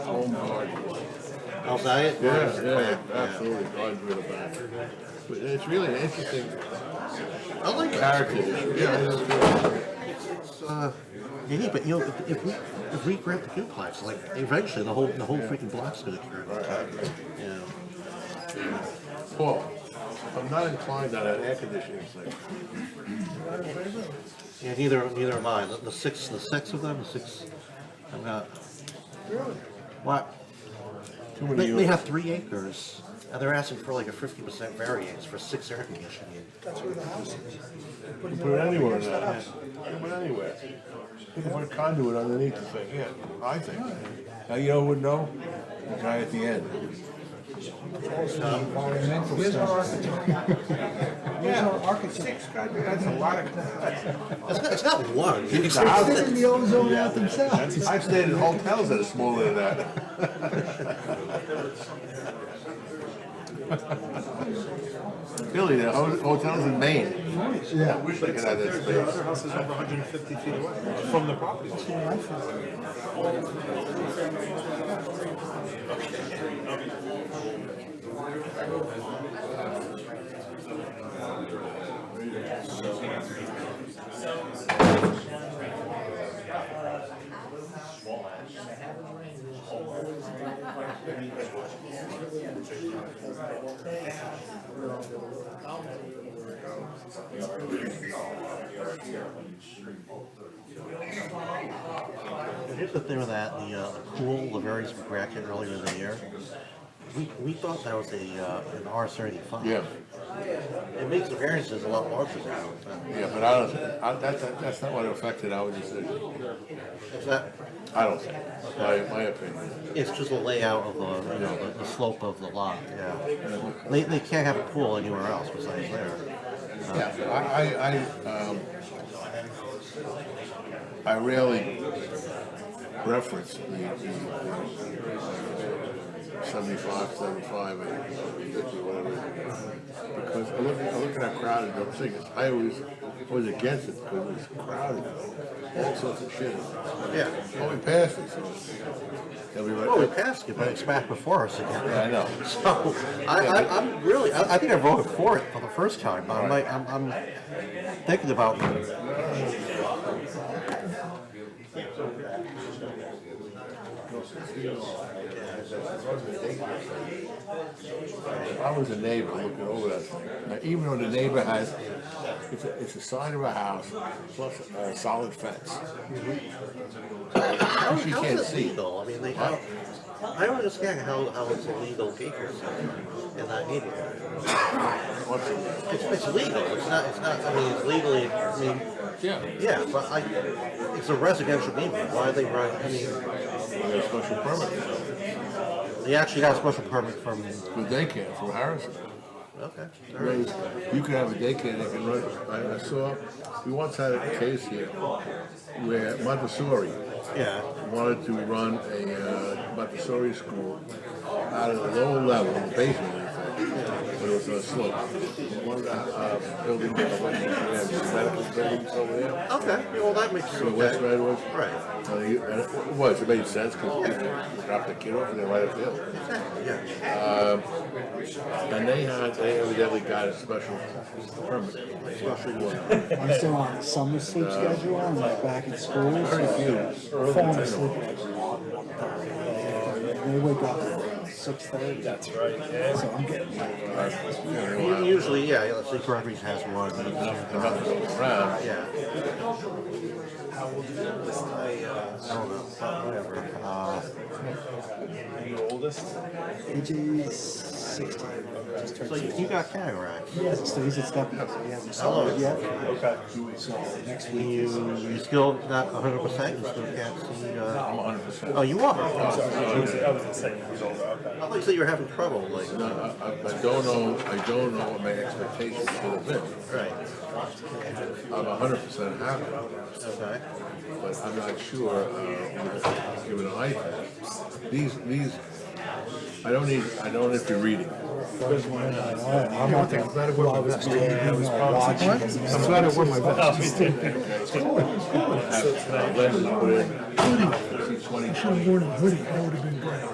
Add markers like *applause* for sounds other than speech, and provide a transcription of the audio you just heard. home. I'll say it. Yeah, yeah, absolutely, God's rid of that. But it's really an interesting I like it. heritage, yeah, it is good. Uh, yeah, but you know, if, if we if we grant the duplex, like eventually the whole the whole freaking block's gonna turn. You know, Paul, I'm not inclined on that air conditioning thing. yeah, neither neither am I. The, the six the six of them, the six. I'm not. What? Too many They, they units. have three acres, and they're asking for like a fifty percent variance for six air conditioning. units. You can put it anywhere in that. You can put it anywhere. You can put conduit underneath the thing, yeah, I think. Now, you know who would know? The guy at the end. Here's our architect. Here's our architect. Six, that's a lot of. It's not, it's not *laughs* one. It's house. They're *laughs* in the ozone out themselves. I've stayed in hotels that are smaller than that. *laughs* Really, the ho- hotels in Maine. Yeah. Wish they could have that Their space. other house is over 150 feet away from the property. line. Here's the thing with that, the, uh, the pool, the variance we granted earlier in the year, we, we thought that was a, uh, an R thirty-five. Yeah, It makes the variances a lot larger now, but yeah, but I don't, I, that's, that's not what affected our decision. it's that, I don't think, my, my opinion. it's just the layout of the, you know, the, the slope of the lot, yeah. They, they can't have a pool anywhere else besides there. Yeah, I, I, I, um, I rarely reference the, the seventy-five, seventy-five, and fifty, whatever. Because I look, I look at how crowded those things, I always was against it because it was crowded, all sorts of shit. Yeah. Well, we passed it, so. they'll be right Well, we back. passed it, but it's back before us again. *laughs* Yeah, I know. So, I, I, I'm really, I, I think I voted for it for the first time, but I'm like, I'm, I'm thinking about If I was a neighbor looking over that thing, now even though the neighbor has, it's a, it's a side of a house plus a solid fence. How, She how can't is it see. legal? I mean, they, how, I don't understand how, how it's illegal acres in that neighborhood. What's it? It's, it's legal, it's not, it's not, I mean, it's legally, I mean, Yeah. yeah, but I, it's a residential neighborhood, why are they run, I mean, They got a special permit they actually got a special permit from, for daycare from Harrison. okay, all right. You can have a daycare that can run, I, I saw, we once had a case here where Montessori yeah, wanted to run a uh, Montessori school out of the lower level, the basement, in fact, but it was on a slope. One of the uh, buildings, on the west side, they have medical buildings over there, okay, well, that makes on the west sense, side was. right, Uh, you- and it was, it made sense, because people dropped the kid off and they right up the hill. exactly, yeah, And they had, they evidently got a special permit. I'm still on summer sleep schedule, I'm like back in school, Very few. so falling asleep like one, They wake up at six thirty. That's right. So I'm getting like, U- usually, yeah, let's say Gregory's has one, but Enough enough going around. Yeah. I don't know, but whatever. Uh, AJ's so sixteen, just turned you, sixteen. you got cataracts. He hasn't, so he's at step, so he hasn't started yet. Okay. So next You, week, you still not hundred percent, you still can't see, uh, I'm hundred percent. oh, you are? I I was I was insane. He's older, okay. thought you said you were having trouble, like, No, I, I- I don't know, I don't know what my expectations should have been. right, I'm hundred percent happy, okay. but I'm not sure, uh, given an iPad. These, these, I don't need, I don't have to read it. I'm not gonna, well, I was doing, you know, watching. I'm glad it wasn't my best. Have- uh, Lennon put in, uh, 20, 20. Should have worn a hoodie, that would have been great.